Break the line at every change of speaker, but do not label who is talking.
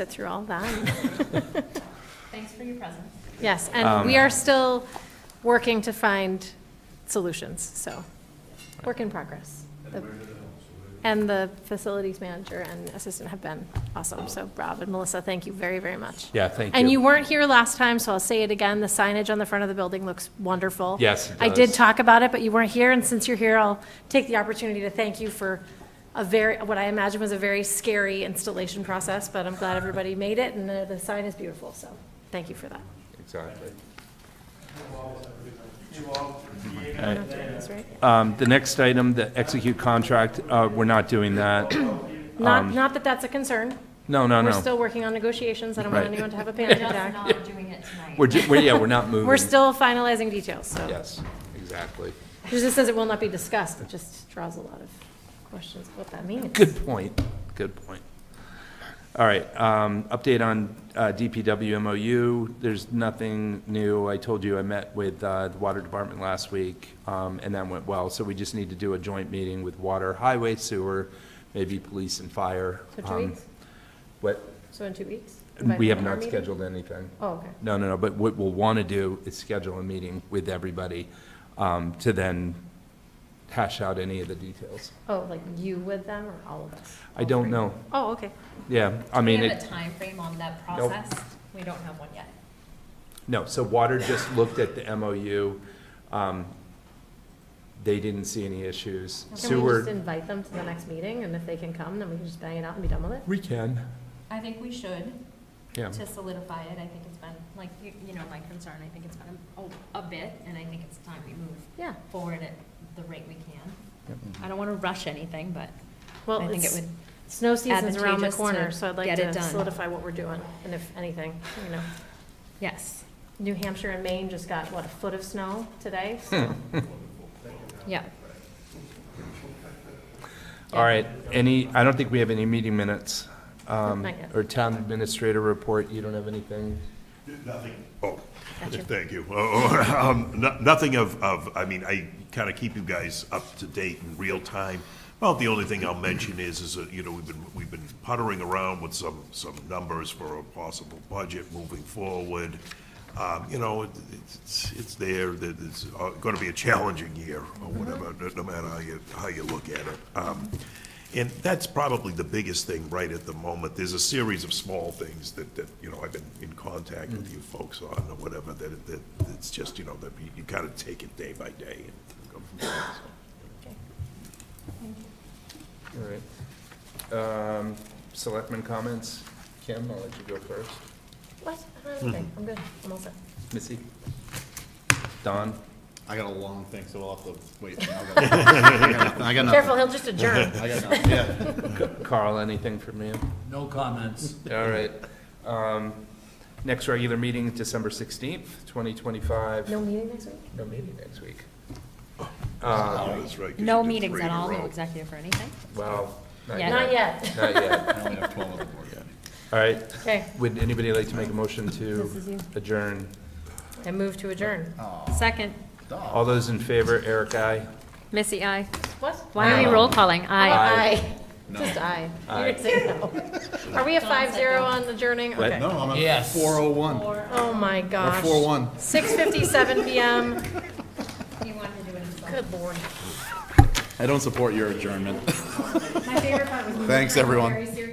sit through all that.
Thanks for your presence.
Yes, and we are still working to find solutions, so, work in progress. The- And the facilities manager and assistant have been awesome, so Rob and Melissa, thank you very, very much.
Yeah, thank
And you
you.
weren't here last time, so I'll say it again, the signage on the front of the building looks wonderful.
Yes, it
I did
does.
talk about it, but you weren't here, and since you're here, I'll take the opportunity to thank you for a very, what I imagine was a very scary installation process, but I'm glad everybody made it, and the the sign is beautiful, so thank you for that.
Exactly.
I don't know if you're doing this right.
Um, The next item, the execute contract, uh, we're not doing that.
Not, not that that's a concern.
No, um, no,
We're
no.
still working on negotiations, I don't want
Right.
anyone to have a panic
Just
attack.
not doing it tonight.
We're, ju- we're- yeah, we're not moving.
We're still finalizing details, so.
Yes, exactly.
It just says it will not be discussed, it just draws a lot of questions of what that means.
Good point, good point. All right, um, update on uh, DPW MOU, there's nothing new. I told you I met with uh, the Water Department last week, um, and that went well. So we just need to do a joint meeting with Water, Highway, Sewer, maybe Police and Fire.
So two
Um,
weeks,
What,
so in two weeks?
we have
Our
not
meeting?
scheduled anything.
Oh, okay.
No, no, no, but what we'll want to do is schedule a meeting with everybody um, to then hash out any of the details.
Oh, like you with them or all of us?
I
All
don't
three?
know.
Oh, okay.
Yeah, I
Do
mean,
we have a
it,
timeframe on that
Nope.
process? We don't have one yet.
no, so Water just looked at the MOU. um, They didn't see any issues.
Can we just
Sewer,
invite them to the next meeting, and if they can come, then we can just bang it out and be done with it?
we can,
I think we should,
yeah.
to solidify it. I think it's been, like, you you know, my concern, I think it's been a a bit, and I think it's time we move
Yeah,
forward at the rate we can. I don't want to rush anything, but
well,
I think it
it's,
would,
snow season's around the
advantageous to
corner, so I'd like
get it
to
done.
solidify what we're doing, and if anything, you know.
yes,
New Hampshire and Maine just got, what, a foot of snow today?
Hmm.
So
yeah.
All right, any, I don't think we have any meeting minutes. um,
Not yet.
Or town administrator report, you don't have anything?
Nothing. Oh,
Gotcha.
thank you. Oh, um, no- Nothing of, of, I mean, I kind of keep you guys up to date in real time. Well, the only thing I'll mention is, is that, you know, we've been, we've been puttering around with some, some numbers for a possible budget moving forward. Um, You know, it- it's, it's there, that it's going to be a challenging year or whatever, no- no matter how you, how you look at it. Um, And that's probably the biggest thing right at the moment. There's a series of small things that, that, you know, I've been in contact with you folks on or whatever, that, that, it's just, you know, that you- you kind of take it day by day and go from there. so.
All right. Um, Selectmen comments? Kim, I'll let you go first.
What? Uh, Okay, I'm good, I'm all set.
Missy? Don?
I got a long thing, so we'll have to wait. I got nothing. I got
Careful,
nothing.
he'll just adjourn.
I got nothing, yeah.
Carl, anything from you?
No comments.
All right. Um, Next regular meeting, is December 16th, 2025.
No meeting next week?
No meeting next week.
Yeah, that's right, 'cause
Uh, No
you did
meetings
three
at
in a
all, no
row.
executive or anything?
Well, not
Yeah.
Not
yet.
yet.
Not yet.
I only have twelve other board meetings.
All right.
Okay,
Would anybody like to make a motion
This is you.
to adjourn?
I move to adjourn.
Second,
All those in favor, Eric, aye?
Missy, aye.
What?
Why are we roll calling? Aye.
Aye. Just aye. You
Aye.
didn't say no. Are we a five zero on adjourning?
What?
Okay.
No, I'm at
Yes.
four oh one,
Oh, my gosh.
four one.
Six fifty-seven PM.
He wanted to do it himself.
Good lord.
I don't support your adjournment.
My favorite part was.
Thanks, everyone.
serious